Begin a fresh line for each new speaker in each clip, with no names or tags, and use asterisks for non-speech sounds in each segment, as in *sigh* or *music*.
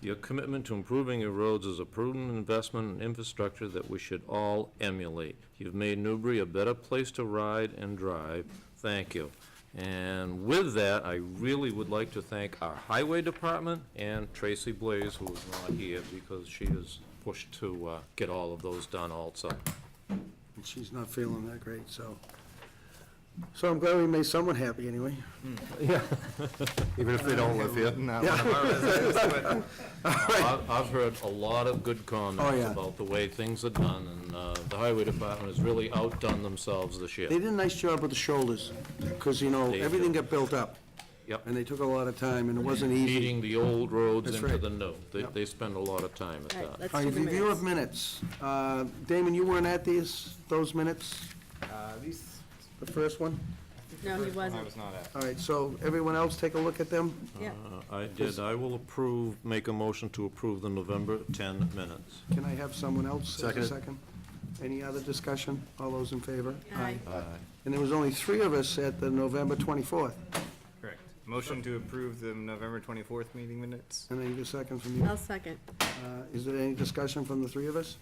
Your commitment to improving your roads is a prudent investment in infrastructure that we should all emulate. You've made Newbury a better place to ride and drive. Thank you. And with that, I really would like to thank our Highway Department and Tracy Blaze, who is not here because she is pushed to uh, get all of those done also.
and she's not feeling that great, so. So I'm glad we made someone happy anyway.
Even if they don't live here. Not
*laughs*
one of our residents, but
I've I've heard a lot of good comments
Oh, yeah.
about the way things are done, and uh, the Highway Department has really outdone themselves this year.
They did a nice job with the shoulders, because, you know,
They
everything
did.
got built up,
Yep.
and they took a lot of time, and it wasn't easy.
feeding the old roads
That's
into
right.
the new. They,
Yep.
they spend a lot of time
All
at
right,
that.
let's
All
do
right,
the
review of
minutes.
minutes. Uh, Damon, you weren't at these, those minutes,
uh, these,
the first one?
No, he
I
wasn't.
was not at.
All right, so everyone else take a look at them?
Yeah,
Uh, I did, I will approve, make a motion to approve the November 10 minutes.
Can I have someone else as a
Second.
second? Any other discussion? All those in favor?
aye,
And there was only three of us at the November 24th,
Correct. Motion to approve the November 24th meeting minutes?
and I need a second from you.
I'll second.
Uh, Is there any discussion from the three of us?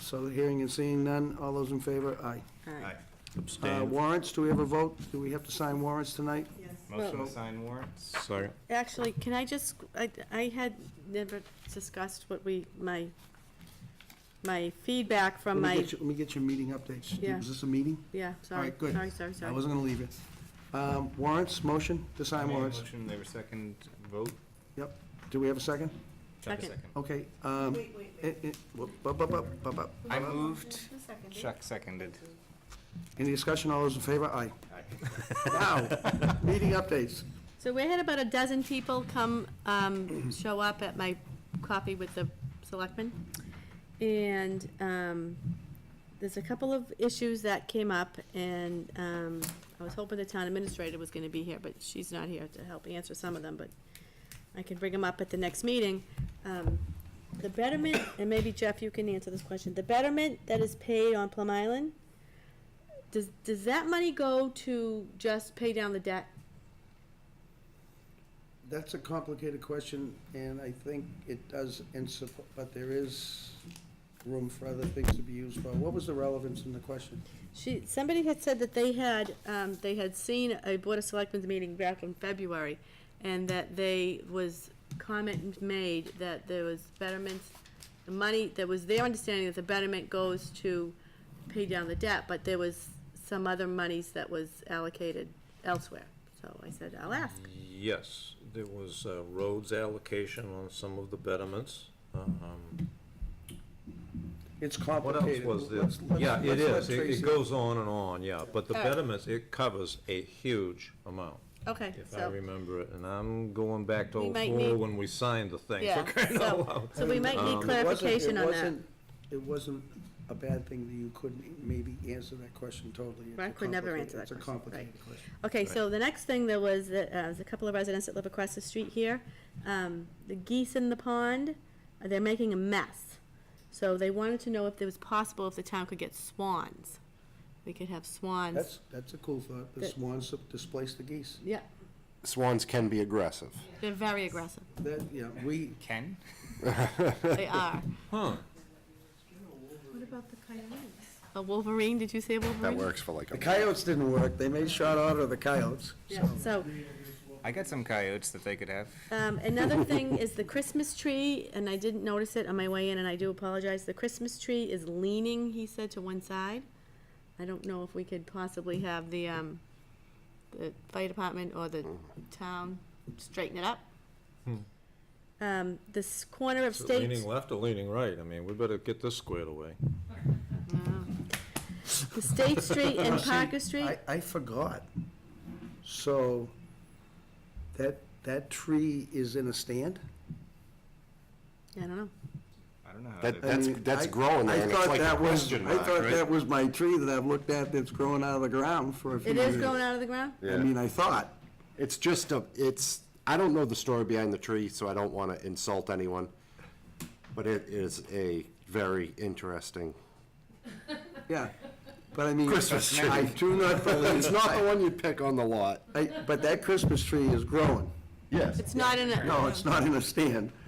So hearing and seeing none, all those in favor, aye.
Aye.
Uh,
Abstain.
Warrants, do we have a vote? Do we have to sign warrants tonight?
Motion
Well-
to sign warrants?
Sorry.
Actually, can I just, I, I had never discussed what we, my, my feedback from
Let me
my,
get you- Let me get your meeting updates.
Yeah.
Is this a meeting?
yeah, sorry,
right, good.
sorry, sorry,
I
sorry.
wasn't going to leave you. Um, Warrants, motion to
I
sign
made a
warrants.
Motion, they were second, vote?
Yep. Do we have a second?
Chuck
Second.
Okay. um, eh, Wait, wait, wait.
I moved, Chuck seconded.
Any discussion? All those in favor? Aye.
*laughs*
Wow. Meeting updates.
So we had about a dozen people come, um, show up at my coffee with the selectmen. And, um, there's a couple of issues that came up and, um, I was hoping the town administrator was gonna be here, but she's not here to help answer some of them, but I can bring them up at the next meeting. Um, The betterment, and maybe Jeff, you can answer this question, the betterment that is paid on Plum Island, does, does that money go to just pay down the debt?
That's a complicated question, and I think it does, in sup- but there is room for other things to be used for. What was the relevance in the question?
She, somebody had said that they had, um, they had seen a Board of Selectmen's meeting back in February, and that they was, comment made that there was betterments, the money, that was their understanding that the betterment goes to pay down the debt, but there was some other monies that was allocated elsewhere. So I said, I'll ask.
Yes, there was uh, roads allocation on some of the betterments. Um,
It's
What else
complicated.
was there?
Let's- let's-
Yeah, it
let's
is.
let
It- It
Tracy-
goes on and on, yeah. But the
All right.
betterments, it covers a huge amount,
Okay,
if I
so,
remember it. And I'm going back to
We might need-
04 when we signed the thing.
yeah,
for *laughs* crying out
*laughs*
so,
loud.
so we might need
Um, It wasn't- it
clarification on that.
wasn't- It wasn't a bad thing that you couldn't maybe answer that question totally. It's a
I could never
complicated-
answer that
It's a
question, right.
complicated question.
Okay, so the next thing there was, that, uh, there's a couple of residents that live across the street here. Um, the geese in the pond, uh, they're making a mess. So they wanted to know if it was possible if the town could get swans. We could have swans.
That's, that's a cool thought. The
That-
swans displaced the geese.
Yeah,
Swans can be aggressive.
they're very aggressive.
That, yeah, we, *laughs*
Ken?
*laughs*
They are.
Huh.
What about the coyotes? A wolverine, did you say wolverine?
That works for like
the
a,
coyotes didn't work. They made shot out of the coyotes.
Yeah, so,
I got some coyotes that they could have.
Um, another thing is the Christmas tree, and I didn't notice it on my way in, and I do apologize. The Christmas tree is leaning, he said, to one side. I don't know if we could possibly have the, um, the fire department or the town straighten it up. Um, this corner of
Is it
State.
leaning left or leaning right? I mean, we better get this squared away.
the State Street and
See,
Parker Street,
I, I forgot. So, that, that tree is in a stand?
I don't know.
I don't know. how
that,
they-
I
that's,
mean,
that's
I-
growing
I
there, and it's
thought
like a
that was-
question mark,
I thought
right?
that was my tree that I've looked at that's growing out of the ground for a few
It
years.
is growing out of the ground?
I mean, I thought,
It's just a, it's, I don't know the story behind the tree, so I don't want to insult anyone, but it is a very interesting.
yeah, but I mean.
Christmas tree.
I do not *laughs*
It's
believe,
not the one you pick on the lot.
I- but that Christmas tree is growing.
Yes.
It's not in a.
No, it's not in a stand.